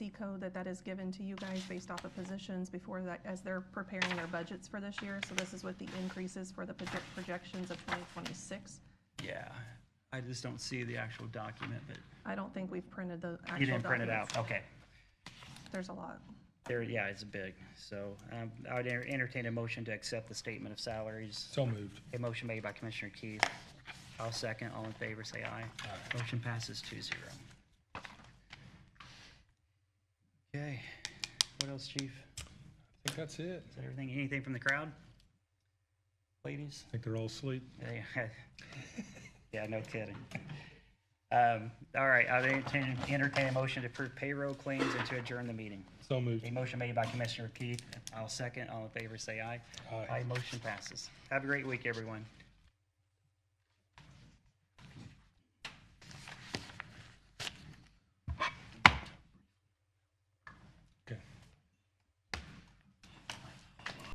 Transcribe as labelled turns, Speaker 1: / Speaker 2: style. Speaker 1: code that that is given to you guys based off of positions before that, as they're preparing their budgets for this year. So this is with the increases for the proje- projections of 2026.
Speaker 2: Yeah, I just don't see the actual document, but
Speaker 1: I don't think we've printed the actual
Speaker 2: you didn't print it out.
Speaker 1: documents.
Speaker 2: Okay.
Speaker 1: There's a lot.
Speaker 2: There, yeah, it's big. So um, I would enter- entertain a motion to accept the statement of salaries.
Speaker 3: So moved.
Speaker 2: A motion made by Commissioner Keith. I'll second. All in favor, say aye. Motion passes two zero. Okay, what else, chief?
Speaker 3: I think that's it.
Speaker 2: Is that everything? Anything from the crowd? Ladies?
Speaker 3: I think they're all asleep.
Speaker 2: Yeah, Yeah, no kidding. Um, All right, I'll entertain, entertain a motion to approve payroll claims and to adjourn the meeting.
Speaker 3: So moved.
Speaker 2: A motion made by Commissioner Keith. I'll second. All in favor, say aye.
Speaker 3: Aye.
Speaker 2: Motion passes. Have a great week, everyone.